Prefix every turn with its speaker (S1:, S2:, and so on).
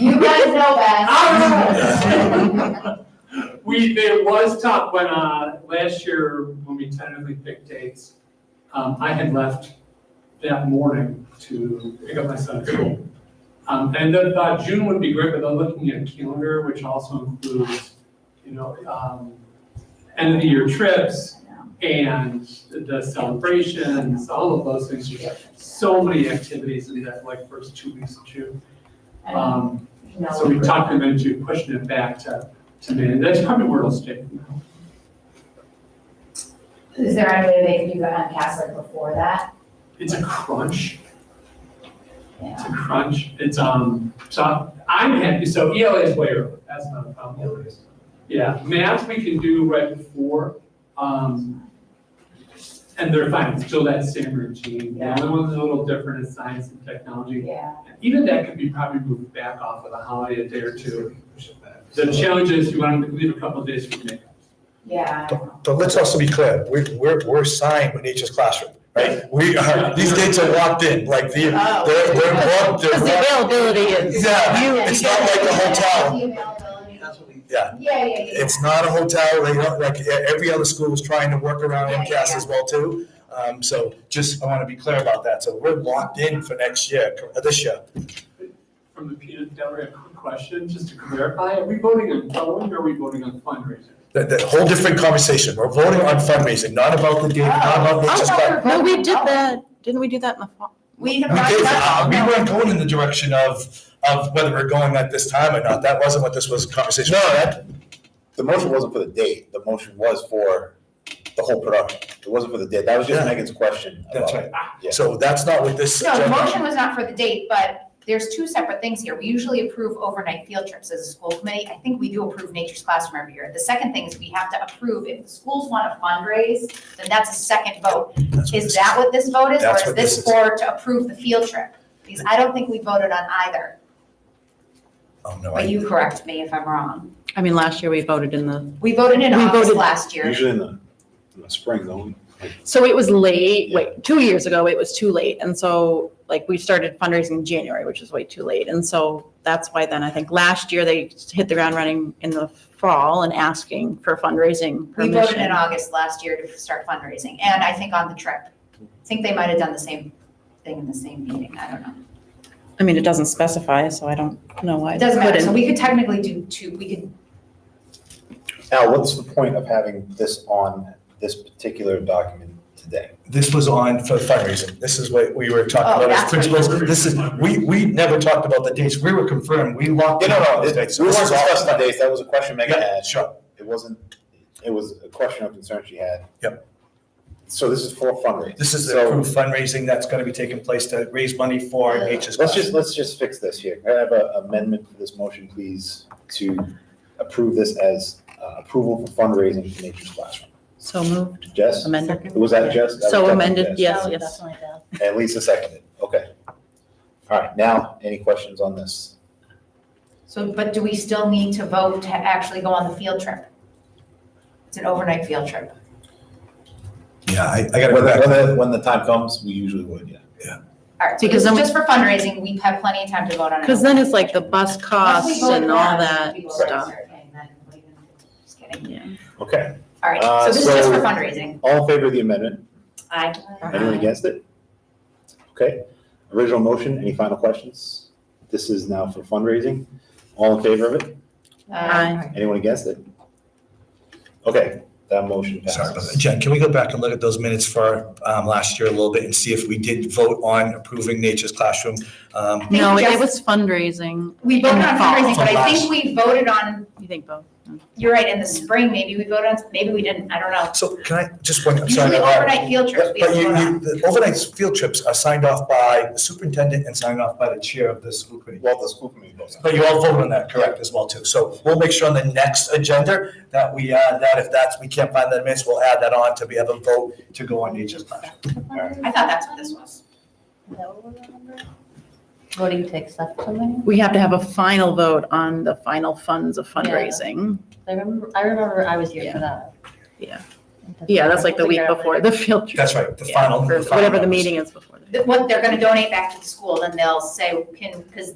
S1: You guys know best.
S2: We, it was tough when, uh, last year, when we tentatively picked dates, um, I had left that morning to pick up my son at school. Um, and then, uh, June would be great, but I'm looking at calendar, which also includes, you know, um, end of the year trips and the celebrations, all of those things. There's So many activities in that, like, first two weeks of June. Um, so we talked them into pushing it back to, to May, and that's probably where it'll stay.
S1: Is there any way they could do that on Castle before that?
S2: It's a crunch, it's
S1: Yeah.
S2: a crunch, it's, um, so I'm happy, so ELA is way early, that's not a problem. Yeah, math we can do right before, um, and they're fine, it's still that same routine. The only one that's a little different is science and technology.
S1: Yeah.
S2: Even that could be probably moved back off of the holiday a day or two. The challenge is you want them to leave a couple of days for makeup.
S1: Yeah. I know.
S3: But let's also be clear, we're, we're, we're signed with Nature's Classroom, right? We are, these kids are locked in, like, they're,
S4: Oh.
S3: they're, they're locked, they're
S4: Because the
S3: locked.
S4: availability is. you-
S3: Yeah, it's
S4: you
S3: not
S4: get-
S3: like a hotel,
S1: The availability.
S3: yeah,
S1: Yeah, yeah, yeah.
S3: it's not a hotel, they don't, like, e- every other school is trying to work around
S1: Yeah,
S3: MCAS
S1: yeah.
S3: as well too. Um, so just, I wanna be clear about that, so we're locked in for next year, uh, this year.
S2: From the peanut gallery, a quick question, just to clarify, are we voting on following or are we voting on fundraising?
S3: That, that whole different conversation, we're voting on fundraising, not about the data, not about Nature's Classroom.
S4: No, we did that, didn't we do that in the fall?
S1: We
S3: We did,
S1: have.
S3: uh, we weren't going in the direction of, of whether we're going at this time or not, that wasn't what this was, a conversation. No, that.
S5: The motion wasn't for the date, the motion was for the whole production. It wasn't for the date, that was just
S3: Yeah.
S5: Megan's question
S3: That's
S5: about it. Yeah.
S3: So that's not what this.
S1: No, the
S3: agenda-
S1: motion was not for the date, but there's two separate things here. We usually approve overnight field trips as a school committee. I think we do approve Nature's Classroom every year. The second thing is we have to approve, if the schools want to fundraise, then that's a second vote.
S3: That's what
S1: Is
S3: this
S1: that what this vote is, or
S3: That's
S1: is
S3: what
S1: this
S3: this is.
S1: for to approve the field trip? Because I don't think we voted on either,
S3: Oh, no,
S1: but
S3: I,
S1: you correct me if I'm wrong.
S4: I mean, last year we voted in the,
S1: We voted in
S4: We
S1: August
S4: voted-
S1: last year.
S5: Usually in the, in the spring, though.
S4: so it was late, wait, two years ago, it was too late. And so, like, we started fundraising in January, which is way too late. And so that's why then I think last year they hit the ground running in the fall and asking for fundraising
S1: We
S4: permission.
S1: voted in August last year to start fundraising, and I think on the trip. I think they might have done the same thing in the same meeting, I don't know.
S4: I mean, it doesn't specify, so I don't know why.
S1: It
S4: they
S1: doesn't matter,
S4: couldn't.
S1: so we could technically do two, we could,
S5: Al, what's the point of having this on this particular document today?
S3: this was on for fundraising, this is what we were
S1: Oh,
S3: talking about as
S1: that's what you-
S3: principals, this is, we, we never talked about the dates, we were confirmed, we locked.
S5: Yeah,
S3: in
S5: no, no,
S3: those
S5: it-
S3: dates.
S5: we
S3: This
S5: weren't
S3: is all-
S5: discussing the dates, that was a question Megan
S3: Yeah,
S5: had.
S3: sure,
S5: It wasn't, it was a question of concern she had.
S3: Yep.
S5: So this is for fundraising.
S3: this is the
S5: So-
S3: approved fundraising that's gonna be taking place to raise money for Nature's
S5: Let's just,
S3: Classroom.
S5: let's just fix this here. Can I have an amendment to this motion, please, to approve this as uh, approval for fundraising for Nature's Classroom?
S4: So moved,
S5: Jess?
S4: amended.
S5: Was that Jess? That was
S4: So
S5: definitely
S4: amended,
S5: Jess.
S4: yes, yes.
S5: And Lisa seconded, okay. All right, now, any questions on this?
S1: so, but do we still need to vote to actually go on the field trip? It's an overnight field trip.
S3: Yeah, I, I
S5: When, the- when the, when the time comes, we usually would, yeah.
S1: All right, so
S4: Because
S1: this
S4: then
S1: is just
S4: we-
S1: for fundraising, we have plenty of time to vote on it.
S4: Because then it's like the bus
S1: Once we
S4: costs
S1: vote
S4: and all
S1: on it,
S4: that
S1: we vote on
S4: stuff.
S1: it. Okay, then we can- Just kidding.
S4: Yeah.
S5: Okay,
S1: All right,
S5: Uh,
S1: so this is just for
S5: so-
S1: fundraising. Uh,
S5: all in favor of the amendment?
S1: Aye.
S5: Anyone against it? Okay, original motion, any final questions? This is now for fundraising. All in favor of it?
S1: uh,
S4: Aye.
S5: Anyone against it? Okay, that motion
S3: Sorry about that.
S5: passes.
S3: Jen, can we go back and look at those minutes for um, last year a little bit and see if we did vote on approving Nature's Classroom? Um,
S1: Thank
S4: No,
S1: you,
S4: it
S1: Jess.
S4: was fundraising,
S1: We voted on fundraising, but I
S3: From
S1: think we voted on,
S4: you think both?
S1: you're right, in the spring, maybe we voted on, maybe we didn't, I don't know.
S3: So can I, just one, I'm
S1: Usually
S3: sorry. to interrupt.
S1: overnight field trips,
S3: But
S1: we
S3: you,
S1: have to vote on.
S3: you, the overnight field trips are signed off by the superintendent and signed off by the chair of the school committee.
S5: Well, the school committee votes.
S3: But you all voted on that, correct, as well too. So we'll make sure on the next agenda that we add that, if that's, we can't find the minutes, we'll add that on to be able to vote to go on Nature's Classroom.
S1: I thought that's what this was.
S6: Voting to accept something?
S4: We have to have a final vote on the final funds of fundraising.
S6: I remember, I remember I was here for that.
S4: Yeah. Yeah, that's like the week before the field trip.
S3: That's right, the
S4: Yeah,
S3: final.
S4: or
S3: final
S4: Whatever the
S3: numbers.
S4: meeting is before. the-
S1: th- what they're gonna donate back to the school, then they'll say, can, because